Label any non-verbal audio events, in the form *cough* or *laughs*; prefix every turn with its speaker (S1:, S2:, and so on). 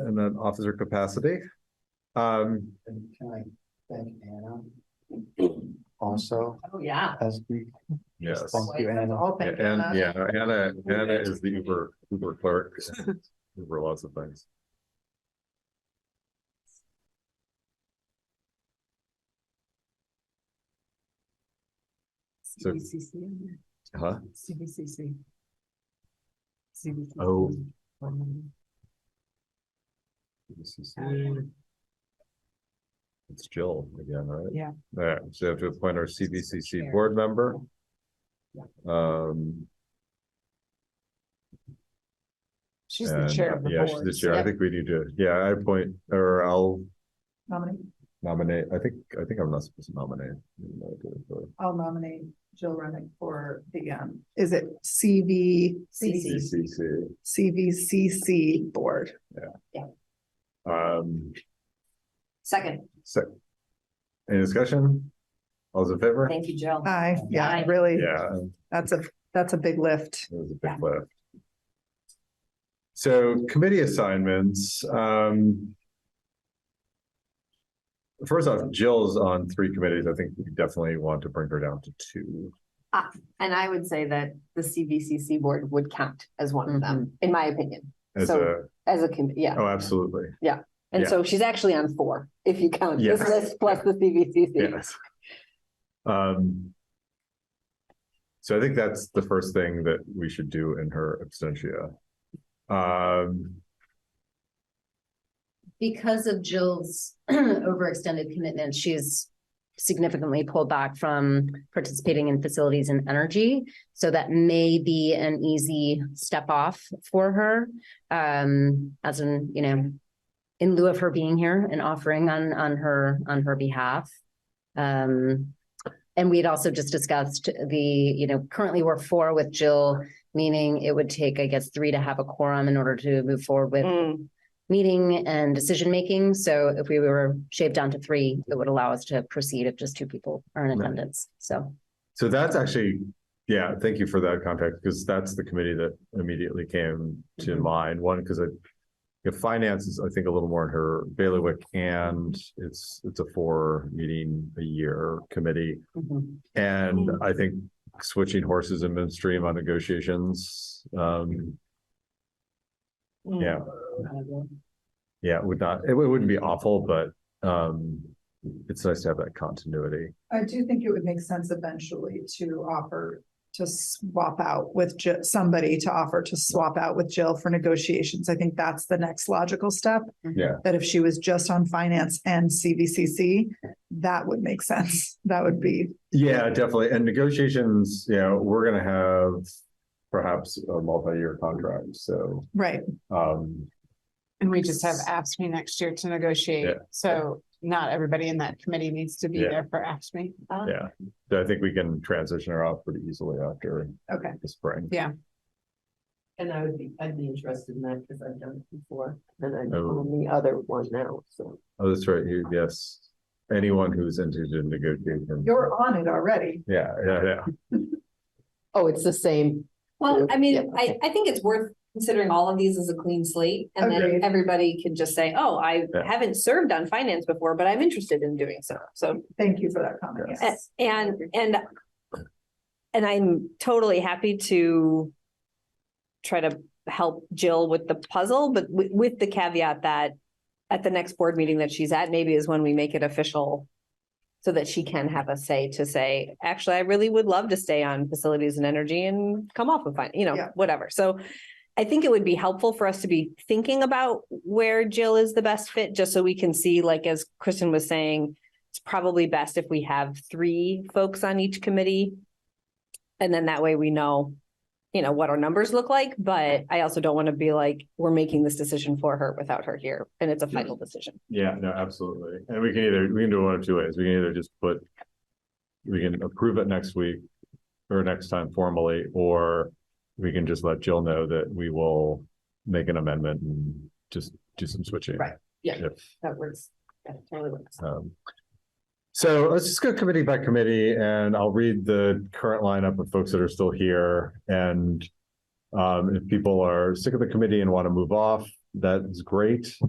S1: in an officer capacity. Um,
S2: And can I thank Anna? Also,
S3: Oh, yeah.
S2: as we,
S1: yes.
S2: Thank you, Anna.
S3: Oh, thank you.
S1: And, yeah, Anna, Anna is the Uber, Uber clerk.
S3: *laughs*
S1: Uber lots of things. So-
S3: CBCC.
S1: Huh?
S3: CBCC. CBCC.
S1: Oh.
S4: Mm.
S3: Um,
S1: It's Jill again, right?
S3: Yeah.
S1: All right, so we have to appoint our CBCC board member.
S3: Yeah.
S1: Um,
S3: She's the
S1: and, uh,
S3: chair of the
S1: yeah,
S3: board.
S1: she's the chair. I think we need to, yeah, I appoint, or I'll
S3: Nominate,
S1: nominate, I think, I think I'm not supposed to nominate. even though I did it for
S3: I'll nominate Jill Remick for the, um, is it CV?
S1: CCC.
S3: CVCC board.
S1: Um,
S4: Second,
S1: so, any discussion? All's in favor?
S4: thank you, Jill.
S3: I, yeah,
S4: Aye.
S3: really,
S1: Yeah,
S3: that's a, that's a big lift.
S1: It was a big lift. So committee assignments, um. First off, Jill's on three committees. I think we definitely want to bring her down to two.
S4: And I would say that the CVCC board would count as one of them, in my opinion,
S1: As a,
S4: So- as a committee, yeah.
S1: Mm-hmm. oh, absolutely.
S4: And
S1: yeah.
S4: so she's actually on four, if you count this
S1: Yes.
S4: list plus the CVCC.
S1: Yes. Um. So I think that's the first thing that we should do in her absentia. Um,
S5: because of Jill's *clears throat* overextended commitment, she's significantly pulled back from participating in facilities and energy. So that may be an easy step off for her. Um, as in, you know, in lieu of her being here and offering on, on her, on her behalf. Um, and we had also just discussed the, you know, currently we're four with Jill, meaning it would take, I guess, three to have a quorum in order to move forward with
S4: Mm,
S5: meeting and decision making. So if we were shaved down to three, it would allow us to proceed if just two people are in
S1: Right.
S5: attendance. So
S1: so that's actually, yeah, thank you for that context, because that's the committee that immediately came to
S4: Mhm.
S1: mind. One, because it. If finance is, I think, a little more in her bailiwick and it's, it's a four meeting a year committee.
S5: mm-hmm.
S4: mhm.
S1: And I think switching horses in midstream on negotiations, um,
S4: Mm.
S5: Mm-hmm.
S1: yeah, yeah, it would not, it wou- wouldn't be awful, but, um, it's nice to have that continuity.
S3: I do think it would make sense eventually to offer to swap out with Ji- somebody to offer to swap out with Jill for negotiations. I think that's the next logical step.
S1: Yeah.
S3: That if she was just on finance and CVCC, that would make sense. That would be,
S1: Yeah, definitely. And negotiations, you know, we're gonna have perhaps a multi-year contract, so,
S3: right,
S1: um,
S6: And we just have AFSMI next year to negotiate,
S1: Yeah.
S6: so not everybody in that committee needs to be
S1: Yeah.
S6: there for AFSMI.
S7: Um,
S4: Ah,
S1: yeah. So I think we can transition her out pretty easily after
S3: okay.
S1: the spring.
S7: And I would be, I'd be interested in that because I've done it before and I'm
S1: Oh.
S7: on the other one now, so.
S1: Oh, that's right, you- yes. Anyone who's interested in negotiating.
S3: You're on it already.
S1: Yeah, yeah, yeah.
S7: Oh, it's the same.
S4: Well, I
S7: Yeah.
S4: mean, I, I think it's worth considering all of these as a clean slate. And
S3: Agreed.
S4: then everybody can just say, oh, I
S1: Yeah.
S4: haven't served on finance before, but I'm interested in doing so. So
S3: Thank you for that comment.
S4: A-
S3: Yes.
S4: And, and, and I'm totally happy to try to help Jill with the puzzle, but with, with the caveat that at the next board meeting that she's at, maybe is when we make it official so that she can have a say to say, actually, I really would love to stay on facilities and energy and come off of, fin-" you know,
S3: Yeah.
S4: whatever. So I think it would be helpful for us to be thinking about where Jill is the best fit, just so we can see, like, as Kristen was saying, it's probably best if we have three folks on each committee. And then that way we know, you know, what our numbers look like, but I also don't want to be like, we're making this decision for her without her here, and it's a final decision.
S1: Yeah, no, absolutely. And we can either, we can do it one of two ways. We can either just put. We can approve it next week or next time formally, or we can just let Jill know that we will make an amendment and just do some switching.
S4: Right, yeah.
S1: If,
S4: That works. That totally works.
S1: um, So let's just go committee by committee and I'll read the current lineup of folks that are still here and. Um, if people are sick of the committee and want to move off, that's great.